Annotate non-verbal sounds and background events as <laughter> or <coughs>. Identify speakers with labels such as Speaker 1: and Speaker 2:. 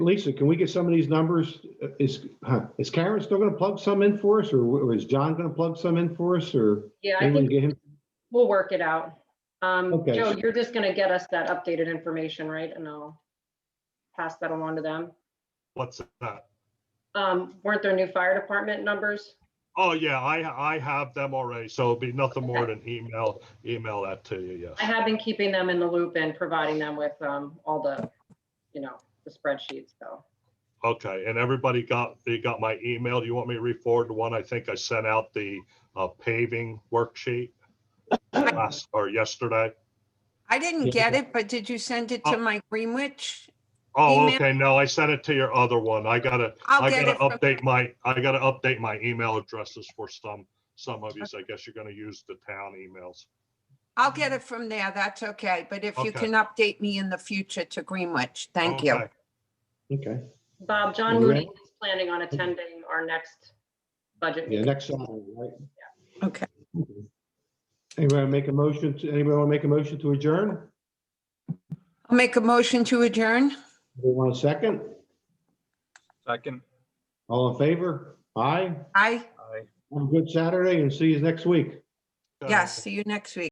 Speaker 1: Lisa, can we get some of these numbers? Uh, Is, huh, is Karen still gonna plug some in for us, or w- or is John gonna plug some in for us, or?
Speaker 2: Yeah, I
Speaker 1: anyone
Speaker 2: think
Speaker 1: get him?
Speaker 2: we'll work it out. Um,
Speaker 1: Okay.
Speaker 2: Joe, you're just gonna get us that updated information, right? And I'll pass that along to them.
Speaker 3: What's that?
Speaker 2: Um, weren't there new fire department numbers?
Speaker 3: Oh, yeah, I, I have them already, so it'll be nothing more than email, email that to you,
Speaker 2: I
Speaker 3: yes.
Speaker 2: have been keeping them in the loop and providing them with, um, all the, you know, the spreadsheets, so.
Speaker 3: Okay, and everybody got, they got my email. Do you want me to re-forward the one I think I sent out the uh, paving worksheet
Speaker 4: <coughs>
Speaker 3: last, or yesterday?
Speaker 4: I didn't
Speaker 1: Yeah.
Speaker 4: get it, but did you send it
Speaker 3: Uh,
Speaker 4: to my Greenwich?
Speaker 3: Oh,
Speaker 4: Email?
Speaker 3: okay, no, I sent it to your other one. I gotta,
Speaker 4: I'll
Speaker 3: I
Speaker 4: get
Speaker 3: gotta
Speaker 4: it from,
Speaker 3: update my, I gotta update my email addresses for some, some of you. I guess you're gonna use the town emails.
Speaker 4: I'll get it from there. That's okay. But if you
Speaker 3: Okay.
Speaker 4: can update me in the future to Greenwich, thank you.
Speaker 3: Okay.
Speaker 1: Okay,
Speaker 2: Bob, John
Speaker 1: All right.
Speaker 2: Moody is planning on attending our next budget
Speaker 1: yeah,
Speaker 2: meeting.
Speaker 1: next Saturday, right?
Speaker 4: Okay.
Speaker 1: Anybody wanna make a motion, to anybody wanna make a motion to adjourn?
Speaker 4: I'll make a motion to adjourn.
Speaker 1: Anybody want a second?
Speaker 5: Second.
Speaker 1: All in favor? Aye,
Speaker 4: Aye,
Speaker 5: Aye.
Speaker 1: have a good Saturday and see you next week.
Speaker 3: Okay.
Speaker 4: yes, see you next week.